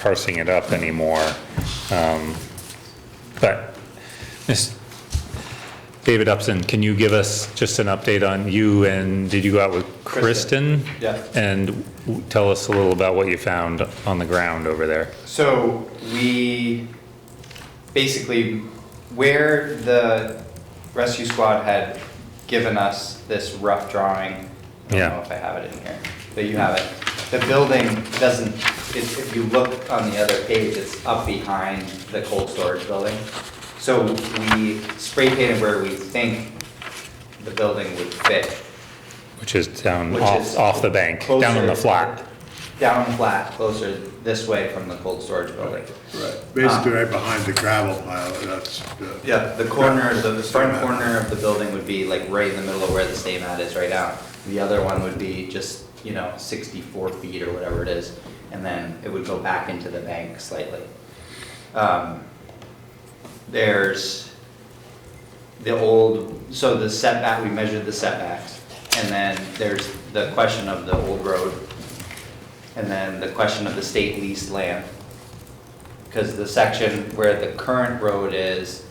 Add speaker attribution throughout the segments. Speaker 1: parsing it up anymore. Um, But, Ms. David Upson, can you give us just an update on you and did you go out with Kristen?
Speaker 2: Kristen, yeah.
Speaker 1: And w- tell us a little about what you found on the ground over there.
Speaker 2: So we basically where the rescue squad had given us this rough drawing. I don't
Speaker 1: Yeah.
Speaker 2: know if I have it in here, but you have it. The building doesn't, if, if you look on the other page, it's up behind the cold storage building. So we spray painted where we think the building would fit.
Speaker 1: Which is down
Speaker 2: Which
Speaker 1: off,
Speaker 2: is
Speaker 1: off the bank, down on the
Speaker 2: closer-
Speaker 1: flat.
Speaker 2: Down flat, closer this way from the cold storage building.
Speaker 3: Right, basically right behind the gravel pile, that's. the-
Speaker 2: Yeah, the corner, the the front
Speaker 3: Yeah.
Speaker 2: corner of the building would be like right in the middle of where the stay mat is right now. The other one would be just, you know, sixty-four feet or whatever it is, and then it would go back into the bank slightly. Um, There's the old, so the setback, we measured the setbacks, and then there's the question of the old road, and then the question of the state leased land. Because the section where the current road is,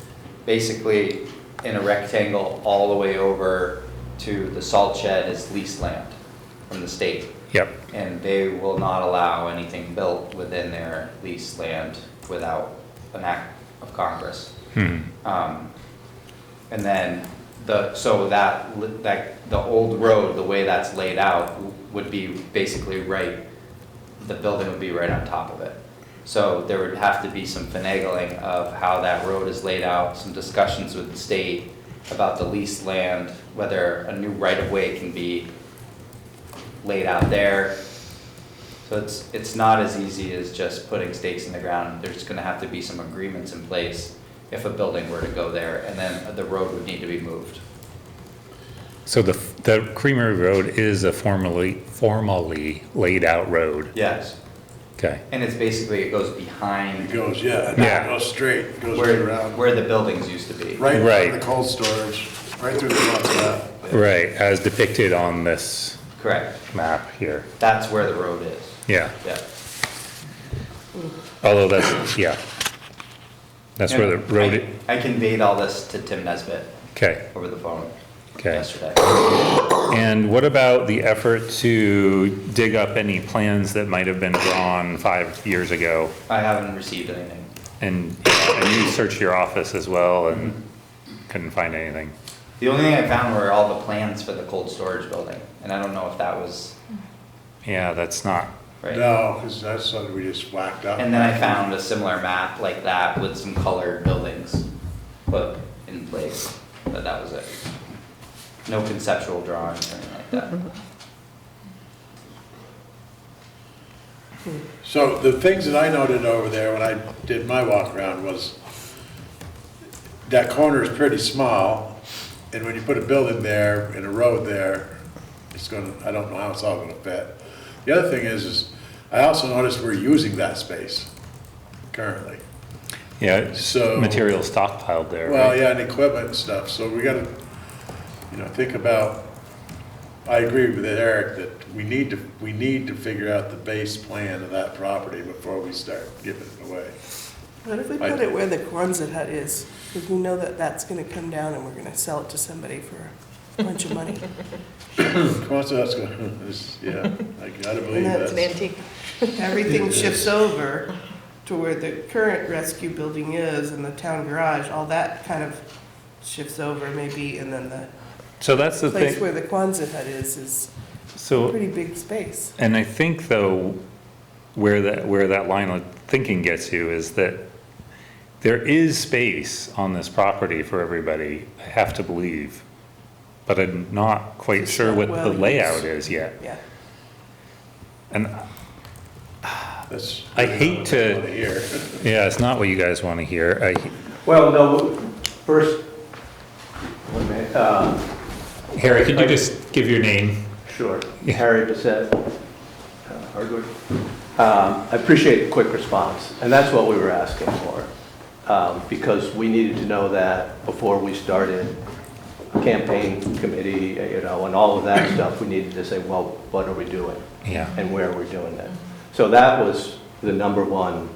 Speaker 2: basically in a rectangle all the way over to the salt shed is leased land from the state.
Speaker 1: Yep,
Speaker 2: And they will not allow anything built within their leased land without an act of Congress.
Speaker 1: hmm,
Speaker 2: Um, And then the, so that, li- that, the old road, the way that's laid out w- would be basically right, the building would be right on top of it. So there would have to be some finagling of how that road is laid out, some discussions with the state about the leased land, whether a new right-of-way can be laid out there. So it's, it's not as easy as just putting stakes in the ground. There's gonna have to be some agreements in place if a building were to go there, and then the road would need to be moved.
Speaker 1: so the, the Creamery Road is a formally, formally laid out road.
Speaker 2: Yes.
Speaker 1: Okay,
Speaker 2: And it's basically, it goes
Speaker 3: It
Speaker 2: behind
Speaker 3: goes, yeah,
Speaker 1: Yeah.
Speaker 3: it goes straight, it goes right
Speaker 2: where,
Speaker 3: around,
Speaker 2: where the buildings used to be.
Speaker 3: right
Speaker 1: Right.
Speaker 3: in the cold storage, right through the front of that.
Speaker 1: right, as depicted on this
Speaker 2: Correct.
Speaker 1: map here,
Speaker 2: That's where the road is.
Speaker 1: yeah.
Speaker 2: Yeah.
Speaker 1: Although that's, yeah. That's where the
Speaker 2: And
Speaker 1: road,
Speaker 2: I-
Speaker 1: i-
Speaker 2: I conveyed all this to Tim Nesbit
Speaker 1: okay,
Speaker 2: over the phone
Speaker 1: okay.
Speaker 2: yesterday.
Speaker 1: And what about the effort to dig up any plans that might have been drawn five years ago?
Speaker 2: I haven't received anything.
Speaker 1: And, and you searched your office as well and couldn't find anything?
Speaker 2: The only thing I found were all the plans for the cold storage building, and I don't know if that was
Speaker 1: Yeah, that's not,
Speaker 2: right.
Speaker 3: No, because that's something we just whacked up.
Speaker 2: And then I found a similar map like that with some colored buildings put in place, but that was it. No conceptual drawings or anything like that.
Speaker 3: So the things that I noted over there when I did my walk around was that corner is pretty small, and when you put a building there and a road there, it's gonna, I don't know how it's all gonna fit. The other thing is, is I also noticed we're using that space currently.
Speaker 1: yeah, it's
Speaker 3: So-
Speaker 1: material stockpiled there,
Speaker 3: Well,
Speaker 1: right?
Speaker 3: yeah, and equipment and stuff, so we gotta, you know, think about, I agree with Eric that we need to, we need to figure out the base plan of that property before we start giving it away.
Speaker 4: What if we
Speaker 3: I-
Speaker 4: put it where the Quonset hut is? Because we know that that's gonna come down and we're gonna sell it to somebody for a bunch of money.
Speaker 3: Quonset hut's going, this- yeah, I gotta believe
Speaker 4: And
Speaker 3: that.
Speaker 5: It's
Speaker 4: that's-
Speaker 5: an antique.
Speaker 4: Everything shifts over to where the current rescue building is and the town garage, all that kind of shifts over maybe, and then the
Speaker 1: So that's the
Speaker 4: place
Speaker 1: thing,
Speaker 4: where the Quonset hut is, is a
Speaker 1: so.
Speaker 4: pretty big space.
Speaker 1: And I think though, where that, where that line of thinking gets you is that there is space on this property for everybody, I have to believe. But I'm not quite
Speaker 4: It's
Speaker 1: sure
Speaker 4: not
Speaker 1: what
Speaker 4: well
Speaker 1: the
Speaker 4: used.
Speaker 1: layout is yet.
Speaker 4: Yeah,
Speaker 1: And,
Speaker 3: That's-
Speaker 1: I hate to-
Speaker 3: Wanna hear.
Speaker 1: yeah, it's not what you guys want to hear. I,
Speaker 6: Well, no, first, wait a minute, uh,
Speaker 1: Harry, could you just give your name?
Speaker 6: sure,
Speaker 1: Yeah.
Speaker 6: Harry Bissett, uh, Hardwood. Um, I appreciate the quick response, and that's what we were asking for, um, because we needed to know that before we started campaign committee, you know, and all of that stuff, we needed to say, well, what are we doing?
Speaker 1: Yeah.
Speaker 6: and where we're doing it. So that was the number one